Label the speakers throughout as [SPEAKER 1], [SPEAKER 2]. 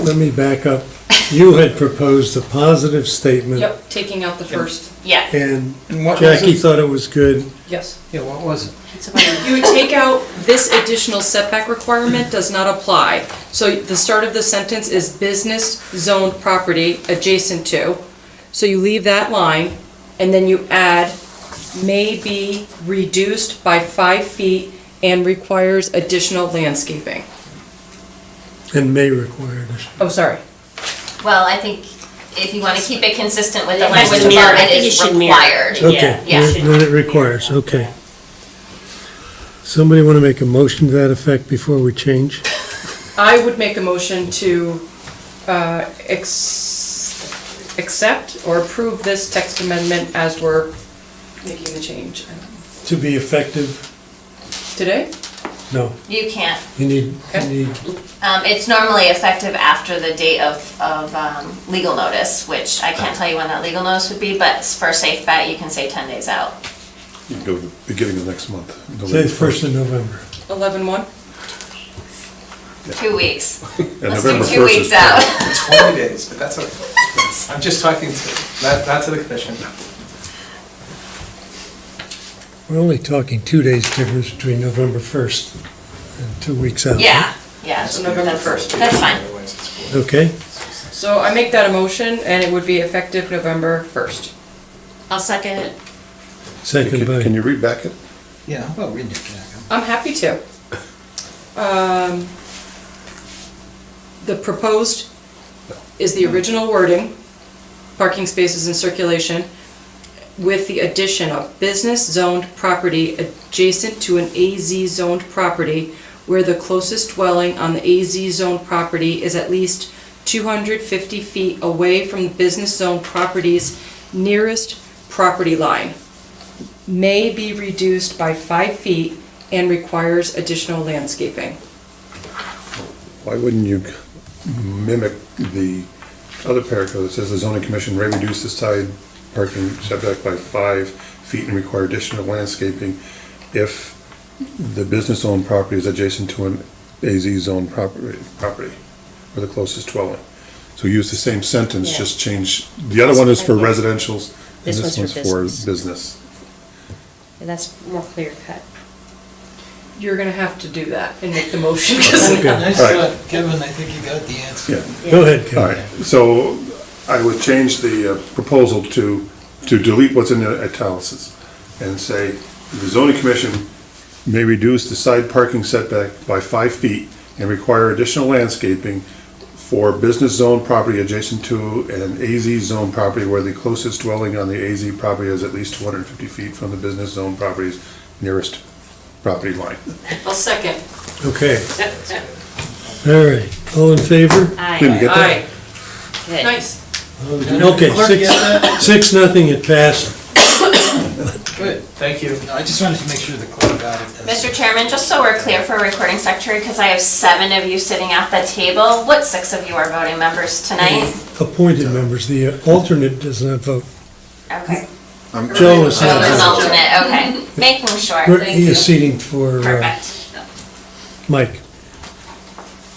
[SPEAKER 1] let me back up. You had proposed a positive statement.
[SPEAKER 2] Yep, taking out the first,
[SPEAKER 3] Yes.
[SPEAKER 1] And
[SPEAKER 4] And what was
[SPEAKER 1] Jackie
[SPEAKER 4] it?
[SPEAKER 1] thought it was good.
[SPEAKER 2] yes.
[SPEAKER 4] Yeah, what was it?
[SPEAKER 3] It's about-
[SPEAKER 2] You would take out, this additional setback requirement does not apply. So the start of the sentence is business zoned property adjacent to. So you leave that line, and then you add may be reduced by five feet and requires additional landscaping.
[SPEAKER 1] And may require additional.
[SPEAKER 2] Oh, sorry.
[SPEAKER 3] Well, I think if you want to keep it consistent with the
[SPEAKER 5] It has to
[SPEAKER 3] language
[SPEAKER 5] mirror-
[SPEAKER 3] above,
[SPEAKER 5] I
[SPEAKER 3] it
[SPEAKER 5] think it
[SPEAKER 3] is
[SPEAKER 5] should mirror.
[SPEAKER 3] required.
[SPEAKER 1] Okay,
[SPEAKER 3] yeah.
[SPEAKER 1] then then it requires, okay. Somebody want to make a motion to that effect before we change?
[SPEAKER 2] I would make a motion to uh, ex- accept or approve this text amendment as we're making the change.
[SPEAKER 1] To be effective?
[SPEAKER 2] Today?
[SPEAKER 1] No,
[SPEAKER 3] You can't,
[SPEAKER 1] you need, you need,
[SPEAKER 3] um, it's normally effective after the date of, of, um, legal notice, which I can't tell you when that legal notice would be, but for a safe bet, you can say ten days out.
[SPEAKER 6] You can go to the beginning of next month.
[SPEAKER 1] say the first of November.
[SPEAKER 2] 11-1?
[SPEAKER 3] Two weeks.
[SPEAKER 6] And
[SPEAKER 3] Let's do
[SPEAKER 6] November
[SPEAKER 3] two
[SPEAKER 6] 1st is
[SPEAKER 3] weeks out.
[SPEAKER 4] Twenty days, but that's okay. I'm just talking to, not, not to the commission.
[SPEAKER 1] We're only talking two days difference between November 1st and two weeks out. right?
[SPEAKER 3] Yeah, yeah.
[SPEAKER 2] So November
[SPEAKER 3] that's-
[SPEAKER 2] 1st.
[SPEAKER 3] That's fine.
[SPEAKER 4] Otherwise it's-
[SPEAKER 1] Okay,
[SPEAKER 2] So I make that a motion, and it would be effective November 1st.
[SPEAKER 5] I'll second it.
[SPEAKER 1] second
[SPEAKER 6] Can- Can
[SPEAKER 1] by,
[SPEAKER 6] you read back it?
[SPEAKER 4] Yeah, how about reading it, Jack?
[SPEAKER 2] I'm happy to. Um, The proposed is the original wording, parking spaces in circulation, with the addition of business zoned property adjacent to an AZ zoned property where the closest dwelling on the AZ zoned property is at least 250 feet away from the business zone property's nearest property line may be reduced by five feet and requires additional landscaping.
[SPEAKER 6] Why wouldn't you mimic the other paragraph that says the zoning commission may reduce the side parking setback by five feet and require additional landscaping if the business owned property is adjacent to an AZ zone property, property, or the closest dwelling. So use the same sentence,
[SPEAKER 5] Yeah.
[SPEAKER 6] just change, the other one is for residential's, and
[SPEAKER 5] This
[SPEAKER 6] this
[SPEAKER 5] one's
[SPEAKER 6] one's
[SPEAKER 5] for
[SPEAKER 6] for
[SPEAKER 5] business.
[SPEAKER 6] business.
[SPEAKER 5] That's more clear cut.
[SPEAKER 2] You're gonna have to do that and make the motion, 'cause-
[SPEAKER 1] Okay.
[SPEAKER 4] Nice
[SPEAKER 6] All right.
[SPEAKER 4] shot, Kevin, I think you got the answer.
[SPEAKER 6] Yeah.
[SPEAKER 1] go ahead, Kevin.
[SPEAKER 6] All right, so I would change the uh, proposal to, to delete what's in the italics and say, the zoning commission may reduce the side parking setback by five feet and require additional landscaping for business zone property adjacent to an AZ zone property where the closest dwelling on the AZ property is at least 250 feet from the business zone property's nearest property line.
[SPEAKER 2] I'll second.
[SPEAKER 1] Okay. All right, all in favor?
[SPEAKER 6] Didn't you
[SPEAKER 5] Aye.
[SPEAKER 6] get that?
[SPEAKER 2] Aye.
[SPEAKER 5] Good.
[SPEAKER 2] Nice.
[SPEAKER 1] Okay,
[SPEAKER 4] Clerk,
[SPEAKER 1] six,
[SPEAKER 4] get that?
[SPEAKER 1] six, nothing, it passed.
[SPEAKER 4] Good, thank you. No, I just wanted to make sure the clerk got it.
[SPEAKER 3] Mr. Chairman, just so we're clear for recording secretary, because I have seven of you sitting at the table, what six of you are voting members tonight?
[SPEAKER 1] Mm-hmm. Appointed members, the uh, alternate does not vote.
[SPEAKER 3] Okay.
[SPEAKER 1] Joe is
[SPEAKER 3] Well, there's
[SPEAKER 1] not.
[SPEAKER 3] alternate, okay. Making sure,
[SPEAKER 1] We're-
[SPEAKER 3] thank
[SPEAKER 1] He
[SPEAKER 3] you.
[SPEAKER 1] is seating for uh,
[SPEAKER 3] Perfect,
[SPEAKER 1] Mike.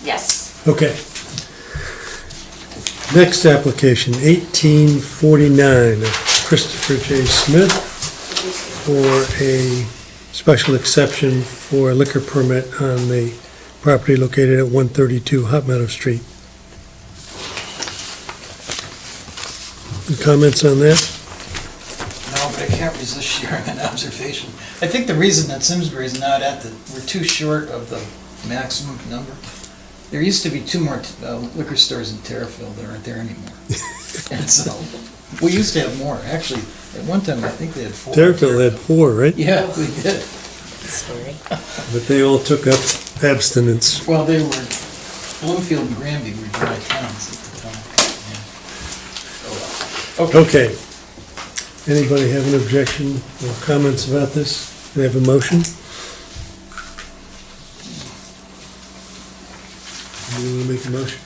[SPEAKER 3] yes.
[SPEAKER 1] Okay. Next application, 1849 of Christopher J. Smith for a special exception for a liquor permit on the property located at 132 Hot Meadow Street. Any Comments on that?
[SPEAKER 4] No, but I can't resist sharing an observation. I think the reason that Simsbury's not at the, we're too short of the maximum number. There used to be two more uh, liquor stores in Terriffill that aren't there anymore. And so, we used to have more, actually, at one time, I think they had four.
[SPEAKER 1] Terriffill had four, right?
[SPEAKER 4] Yeah, we did.
[SPEAKER 5] Scary.
[SPEAKER 1] But they all took up abstinence.
[SPEAKER 4] Well, they were, Bloomfield and Granby were dry towns at the time. yeah.
[SPEAKER 1] Okay. Anybody have an objection or comments about this? Can I have a motion? You want to make a motion?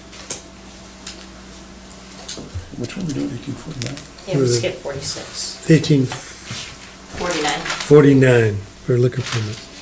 [SPEAKER 6] Which one we doing, 1849?
[SPEAKER 5] Yeah, we skip forty-six.
[SPEAKER 1] 1849
[SPEAKER 3] Forty-nine.
[SPEAKER 1] for liquor permit.